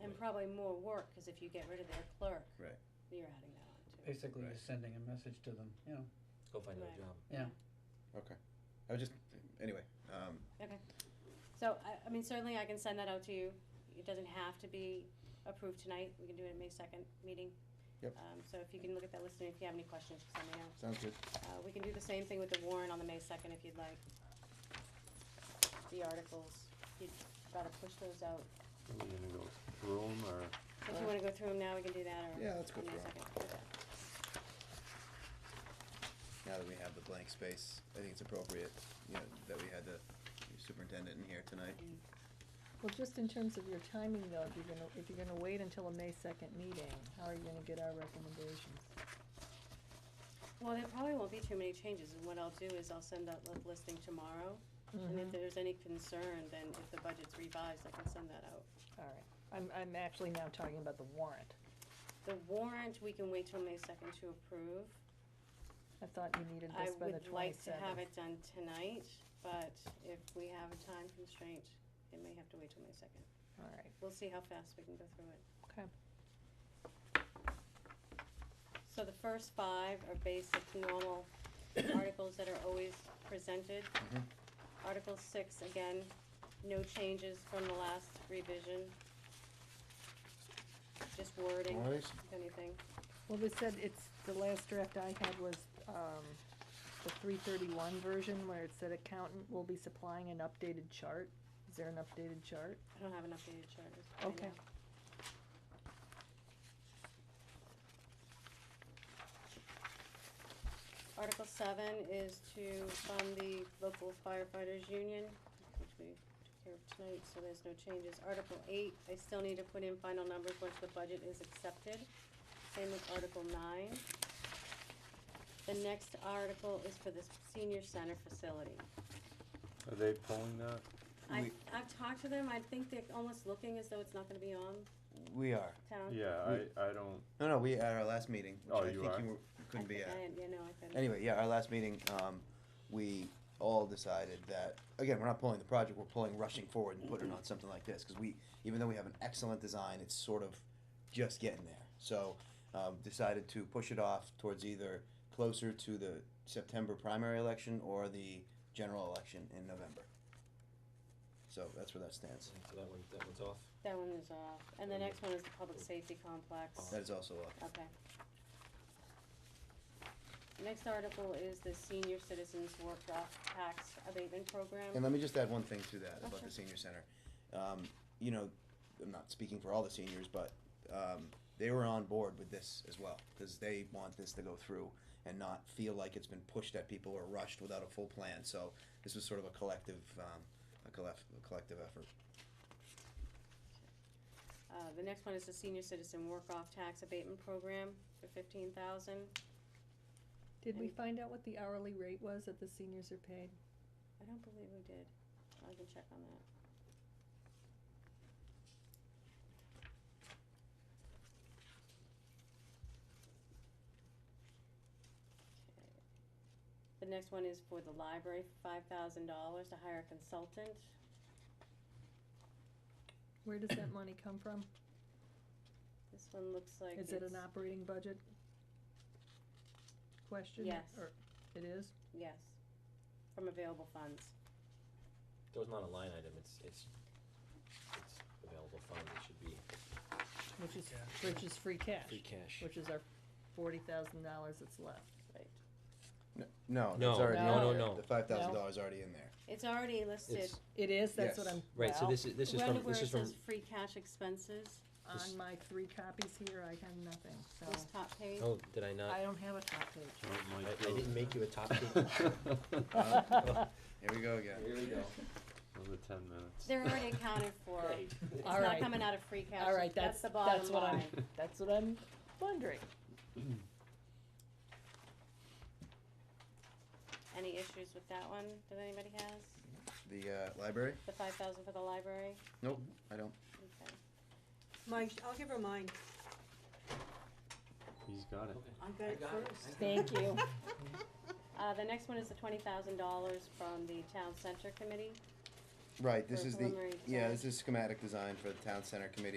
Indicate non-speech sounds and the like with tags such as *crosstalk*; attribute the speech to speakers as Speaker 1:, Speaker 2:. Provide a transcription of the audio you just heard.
Speaker 1: And probably more work, cause if you get rid of their clerk.
Speaker 2: Right.
Speaker 1: You're adding that on too.
Speaker 3: Basically,
Speaker 2: Right.
Speaker 3: you're sending a message to them, you know,
Speaker 4: Go find another
Speaker 1: Right.
Speaker 4: job.
Speaker 3: yeah.
Speaker 2: Okay. I was just, anyway, um,
Speaker 1: So, I, I mean, certainly I can send that out to you, it doesn't have to be approved tonight, we can do it at May second meeting.
Speaker 2: Yep.
Speaker 1: Um, so if you can look at that list, and if you have any questions, just let me know,
Speaker 2: sounds good.
Speaker 1: uh, we can do the same thing with the warrant on the May second if you'd like. The articles, you'd gotta push those out,
Speaker 5: Are we gonna go through 'em or?
Speaker 1: if you wanna go through them now, we can do that, or
Speaker 2: Yeah, let's go
Speaker 1: on May
Speaker 2: through 'em.
Speaker 1: second.
Speaker 2: Now that we have the blank space, I think it's appropriate, you know, that we had the superintendent in here tonight.
Speaker 6: Well, just in terms of your timing though, if you're gonna, if you're gonna wait until a May second meeting, how are you gonna get our recommendations?
Speaker 1: Well, there probably won't be too many changes, and what I'll do is I'll send out the listing tomorrow,
Speaker 6: Mm-hmm.
Speaker 1: and if there's any concern, then if the budget's revised, I can send that out.
Speaker 6: All right, I'm, I'm actually now talking about the warrant.
Speaker 1: The warrant, we can wait till May second to approve.
Speaker 6: I thought you needed
Speaker 1: I
Speaker 6: this by the
Speaker 1: would like to have
Speaker 6: twenty-seventh.
Speaker 1: it done tonight, but if we have a time constraint, it may have to wait till May second.
Speaker 6: All right,
Speaker 1: We'll see how fast we can go through it.
Speaker 6: okay.
Speaker 1: So the first five are basic,
Speaker 6: *coughs*
Speaker 1: normal articles that are always presented.
Speaker 2: Mhm.
Speaker 1: Article six, again, no changes from the last revision. Just wording,
Speaker 2: Alright.
Speaker 1: if anything.
Speaker 6: Well, they said it's, the last draft I had was, um, the three thirty-one version where it said accountant will be supplying an updated chart. Is there an updated chart?
Speaker 1: I don't have an updated chart. as of right
Speaker 6: Okay.
Speaker 1: now. Article seven is to fund the local firefighters union, which we took care of tonight, so there's no changes. Article eight, I still need to put in final numbers once the budget is accepted. Same with article nine. The next article is for the senior center facility.
Speaker 5: Are they pulling that?
Speaker 1: I,
Speaker 2: We-
Speaker 1: I've talked to them, I think they're almost looking as though it's not gonna be on
Speaker 2: We are.
Speaker 1: town.
Speaker 5: Yeah,
Speaker 2: We-
Speaker 5: I, I don't,
Speaker 2: No, no, we, at our last meeting, which
Speaker 5: Oh,
Speaker 2: I
Speaker 5: you
Speaker 2: think
Speaker 5: are?
Speaker 2: you were-
Speaker 1: I
Speaker 2: couldn't be
Speaker 1: think
Speaker 2: at.
Speaker 1: I am, Yeah, no, I couldn't.
Speaker 2: Anyway, yeah, our last meeting, um, we all decided that, again, we're not pulling the project, we're pulling rushing forward and putting it on something like this, cause we, even though we have an excellent design, it's sort of just getting there. So, um, decided to push it off towards either closer to the September primary election or the general election in November. So that's where that stands.
Speaker 4: So that one, that one's off.
Speaker 1: That one is off, and the next one is the public safety complex,
Speaker 2: That is also off.
Speaker 1: okay. Next article is the senior citizens workshop tax abatement
Speaker 2: And
Speaker 1: program,
Speaker 2: let me just add one thing to that
Speaker 1: Oh,
Speaker 2: about
Speaker 1: sure.
Speaker 2: the senior center. Um, you know, I'm not speaking for all the seniors, but, um, they were on board with this as well, cause they want this to go through and not feel like it's been pushed at people or rushed without a full plan, so this was sort of a collective, um, a collect, a collective effort.
Speaker 1: uh, the next one is the senior citizen work-off tax abatement program for fifteen thousand,
Speaker 6: Did we
Speaker 1: And-
Speaker 6: find out what the hourly rate was that the seniors are paid?
Speaker 1: I don't believe we did, I can check on that. Okay. The next one is for the library, five thousand dollars to hire a consultant.
Speaker 6: Where does that money come from?
Speaker 1: This one looks like
Speaker 6: Is it
Speaker 1: it's-
Speaker 6: an operating budget? Question?
Speaker 1: Yes.
Speaker 6: Or it is?
Speaker 1: Yes, from available funds.
Speaker 4: That was not a line item, it's, it's, it's available fund, it should be
Speaker 6: Which is, which is free cash,
Speaker 4: free cash.
Speaker 6: which is our forty thousand dollars that's left.
Speaker 2: No,
Speaker 4: No,
Speaker 2: that's already in
Speaker 6: no, no,
Speaker 2: there.
Speaker 4: no.
Speaker 2: The five thousand dollars already in there.
Speaker 1: It's already listed,
Speaker 4: It's,
Speaker 6: It is, that's what
Speaker 2: Yes.
Speaker 6: I'm,
Speaker 4: right, so
Speaker 6: well,
Speaker 4: this is, this is
Speaker 1: Right
Speaker 4: from,
Speaker 1: where
Speaker 4: this
Speaker 1: it
Speaker 4: is from,
Speaker 1: says free cash expenses,
Speaker 4: this-
Speaker 6: on my three copies here, I have nothing,
Speaker 1: this
Speaker 6: so,
Speaker 1: top page.
Speaker 4: oh, did I not?
Speaker 6: I don't have a top page.
Speaker 5: don't
Speaker 4: I,
Speaker 5: like
Speaker 4: I didn't *laughs* make you a
Speaker 6: *laughs*
Speaker 4: top sheet. Uh,
Speaker 2: Here we go again.
Speaker 4: we go.
Speaker 5: Another ten minutes.
Speaker 1: They're already
Speaker 4: *laughs*
Speaker 1: accounted for.
Speaker 4: Great.
Speaker 1: It's
Speaker 6: All
Speaker 1: not
Speaker 6: right.
Speaker 1: coming out of free cash.
Speaker 6: All right,
Speaker 1: That's
Speaker 6: that's,
Speaker 1: the bottom line.
Speaker 6: that's what I'm, *laughs* that's what I'm wondering.
Speaker 1: Any issues with that one that anybody has?
Speaker 2: The, uh, library?
Speaker 1: The five thousand for the library?
Speaker 2: Nope, I don't.
Speaker 1: Okay.
Speaker 7: Mike, I'll give her mine.
Speaker 5: *laughs* He's got it.
Speaker 7: I got it first.
Speaker 6: Thank you.
Speaker 1: Uh, the next one is the twenty thousand dollars from the town center committee.
Speaker 2: Right, this
Speaker 1: For
Speaker 2: is the,
Speaker 1: preliminary
Speaker 2: yeah,
Speaker 1: design.
Speaker 2: this is schematic design for the town center committee